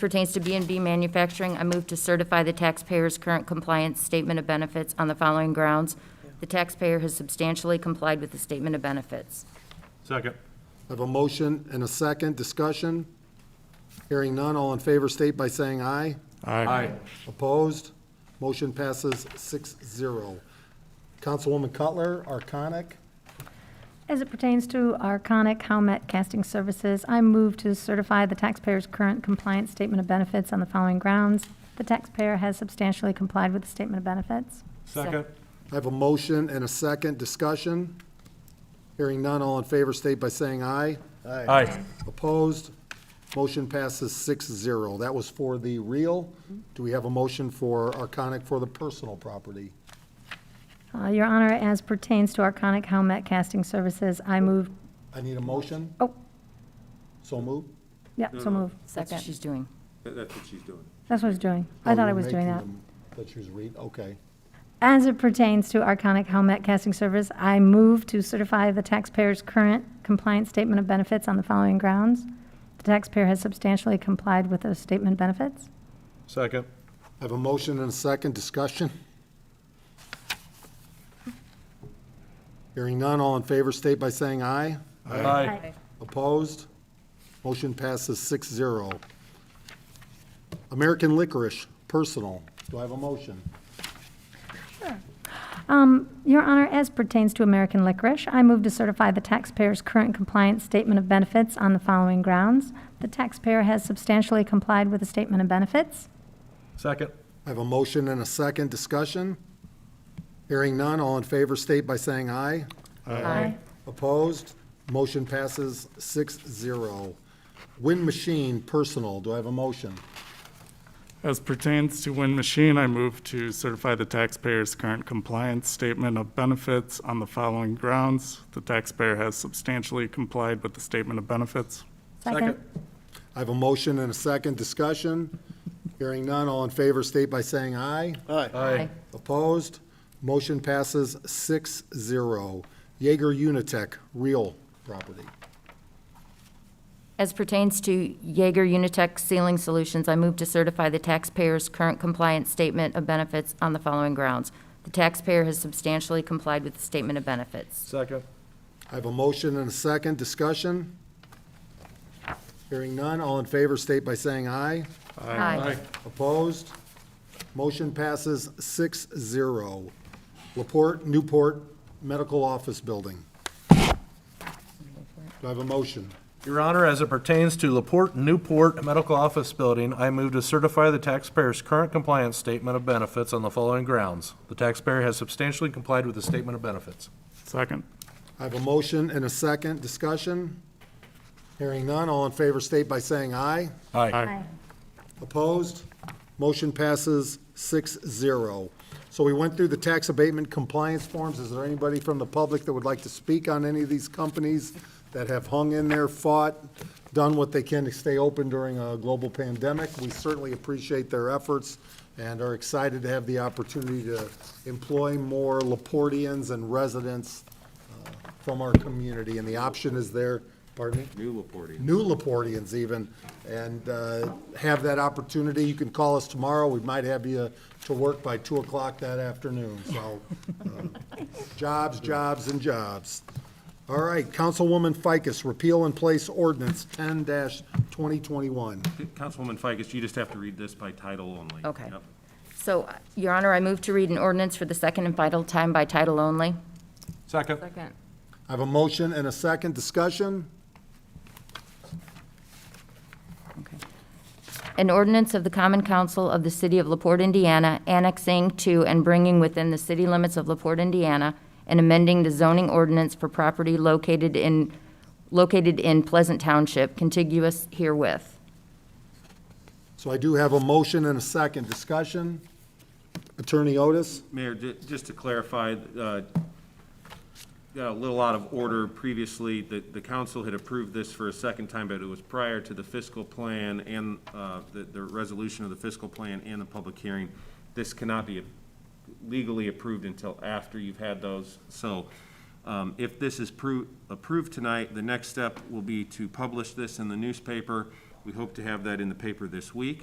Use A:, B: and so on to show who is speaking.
A: pertains to b and B manufacturing, I move to certify the taxpayer's current compliance statement of benefits on the following grounds. The taxpayer has substantially complied with the statement of benefits.
B: Second.
C: I have a motion and a second. Discussion? Hearing none. All in favor state by saying aye.
B: Aye.
C: Opposed? Motion passes 6-0. Councilwoman Cutler, Arconic.
D: As it pertains to Arconic Howmet Casting Services, I move to certify the taxpayer's current compliance statement of benefits on the following grounds. The taxpayer has substantially complied with the statement of benefits.
B: Second.
C: I have a motion and a second. Discussion? Hearing none. All in favor state by saying aye.
B: Aye.
C: Opposed? Motion passes 6-0. That was for the real. Do we have a motion for Arconic for the personal property?
D: Uh, Your Honor, as pertains to Arconic Howmet Casting Services, I move,
C: I need a motion.
D: oh,
C: So moved.
D: yep, so move.
A: That's what she's doing.
B: That's what she's doing.
D: That's what I was doing.
C: Oh,
D: I thought I was doing that.
C: That she was reading, okay.
D: As it pertains to Arconic Helmet Casting Service, I move to certify the taxpayer's current compliance statement of benefits on the following grounds. The taxpayer has substantially complied with those statement benefits.
B: Second.
C: I have a motion and a second discussion. Hearing none, all in favor state by saying aye.
B: Aye.
C: Opposed? Motion passes 6-0. American Licorice, personal. Do I have a motion?
D: Your Honor, as pertains to American Licorice, I move to certify the taxpayer's current compliance statement of benefits on the following grounds. The taxpayer has substantially complied with the statement of benefits.
B: Second.
C: I have a motion and a second discussion. Hearing none, all in favor state by saying aye.
D: Aye.
C: Opposed? Motion passes 6-0. Wind Machine, personal. Do I have a motion?
E: As pertains to Wind Machine, I move to certify the taxpayer's current compliance statement of benefits on the following grounds. The taxpayer has substantially complied with the statement of benefits.
D: Second.
C: I have a motion and a second discussion. Hearing none, all in favor state by saying aye.
B: Aye.
C: Opposed? Motion passes 6-0. Jaeger Unitec, real property.
A: As pertains to Jaeger Unitech Ceiling Solutions, I move to certify the taxpayer's current compliance statement of benefits on the following grounds. The taxpayer has substantially complied with the statement of benefits.
B: Second.
C: I have a motion and a second discussion. Hearing none, all in favor state by saying aye.
A: Aye.
C: Opposed? Motion passes 6-0. Laporte Newport Medical Office Building. Do I have a motion?
B: Your Honor, as it pertains to Laporte Newport Medical Office Building, I move to certify the taxpayer's current compliance statement of benefits on the following grounds. The taxpayer has substantially complied with the statement of benefits.
E: Second.
C: I have a motion and a second discussion. Hearing none, all in favor state by saying aye.
B: Aye.
C: Opposed? Motion passes 6-0. So we went through the tax abatement compliance forms. Is there anybody from the public that would like to speak on any of these companies that have hung in there, fought, done what they can to stay open during a global pandemic? We certainly appreciate their efforts and are excited to have the opportunity to employ more Laportians and residents uh, from our community, and the option is there, pardon me? New Laportians. New Laportians even, and uh, have that opportunity. You can call us tomorrow, we might have you to work by 2 o'clock that afternoon, so uh, jobs, jobs, and jobs. All right, Councilwoman Ficus, repeal and place ordinance 10-2021.
F: Councilwoman Ficus, you just have to read this by title only.
A: Okay.
F: Yep.
A: So, Your Honor, I move to read an ordinance for the second and final time by title only.
B: Second.
A: Second.
C: I have a motion and a second discussion.
A: An ordinance of the Common Council of the City of LaPorte, Indiana, annexing to and bringing within the city limits of LaPorte, Indiana, and amending the zoning ordinance for property located in, located in Pleasant Township contiguous herewith.
C: So I do have a motion and a second discussion. Attorney Otis?
F: Mayor, ju- just to clarify, uh, got a little out of order previously, that the council had approved this for a second time, but it was prior to the fiscal plan and uh, the the resolution of the fiscal plan and the public hearing. This cannot be legally approved until after you've had those. So um, if this is pru- approved tonight, the next step will be to publish this in the newspaper We hope to have that in the paper this week.